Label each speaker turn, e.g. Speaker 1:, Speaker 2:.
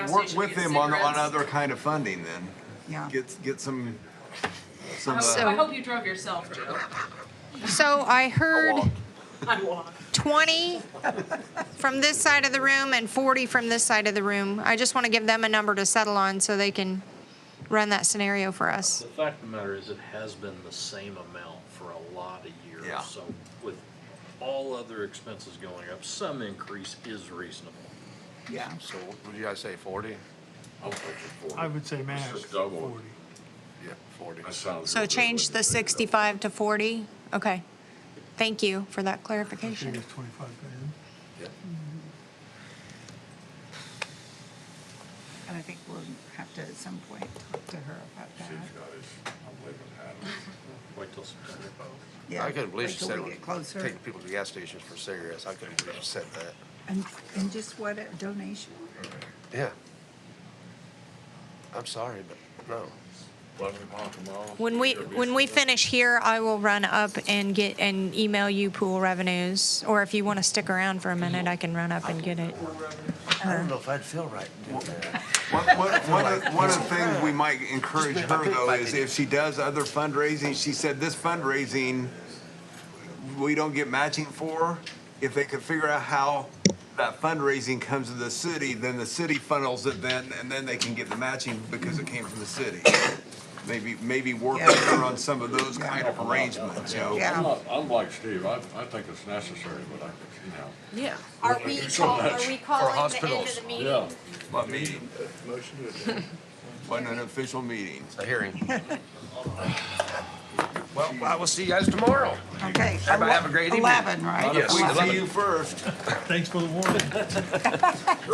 Speaker 1: Work with them on, on other kind of funding then.
Speaker 2: Yeah.
Speaker 1: Get, get some, some,
Speaker 3: I hope-
Speaker 1: uh,
Speaker 3: I hope you drove yourself, Joe.
Speaker 4: So I
Speaker 5: Oh,
Speaker 4: heard
Speaker 1: walk.
Speaker 3: I walked.
Speaker 4: 20 from this side of the room and 40 from this side of the room. I just want to give them a number to settle on so they can run that scenario for us.
Speaker 6: The fact of the matter is, it has been the same amount for a lot of years.
Speaker 1: Yeah.
Speaker 6: So with all other expenses going up, some increase is reasonable.
Speaker 2: Yeah.
Speaker 7: So what do you guys say, forty?
Speaker 8: I would say max
Speaker 5: just double it.
Speaker 8: forty.
Speaker 7: Yeah, forty.
Speaker 5: That sounds
Speaker 4: So
Speaker 5: real good,
Speaker 4: change
Speaker 5: wouldn't
Speaker 4: the
Speaker 5: it?
Speaker 4: 65 to 40. Okay. Thank you for that
Speaker 8: Should
Speaker 4: clarification.
Speaker 8: get twenty-five grand.
Speaker 2: And I think we'll have to at some point talk to her about
Speaker 5: She's got
Speaker 2: that.
Speaker 5: it. I'm leaving Hannah.
Speaker 6: Wait till September.
Speaker 2: Yeah,
Speaker 7: I couldn't believe
Speaker 2: wait
Speaker 7: she
Speaker 2: till
Speaker 7: said,
Speaker 2: we get closer.
Speaker 7: take people to gas stations for cigarettes. I couldn't believe she said that.
Speaker 2: And, and just what, a donation?
Speaker 7: Yeah. I'm sorry, but no.
Speaker 5: Eleven o'clock tomorrow.
Speaker 4: When we when we finish here, I will run up and get and email you pool revenues. Or if you want to stick around for a minute, I can run up and get it.
Speaker 7: I don't know if I'd feel right doing that.
Speaker 1: One, one, one of- one of the things we might encourage her though is if she does other fundraising, she said this fundraising, we don't get matching for, if they could figure out how that fundraising comes to the city, then the city funnels it then, and then they can get the matching because it came from the city. Maybe, maybe work with her on some of those kind of arrangements, you know?
Speaker 2: Yeah.
Speaker 5: I'm not, I'm like Steve, I, I think it's necessary, but I, you know,
Speaker 3: Yeah.
Speaker 4: Are we call, are we calling the end of
Speaker 7: hospitals.
Speaker 4: the meeting?
Speaker 5: yeah.
Speaker 1: What meeting? Wasn't an official meeting.
Speaker 7: A hearing. Well, I will see you guys tomorrow.
Speaker 2: Okay.
Speaker 7: Everybody have a great evening.
Speaker 2: Eleven, right?
Speaker 7: Yes.
Speaker 1: We
Speaker 7: I love
Speaker 1: see
Speaker 7: it.
Speaker 1: you first.
Speaker 8: Thanks for the warning.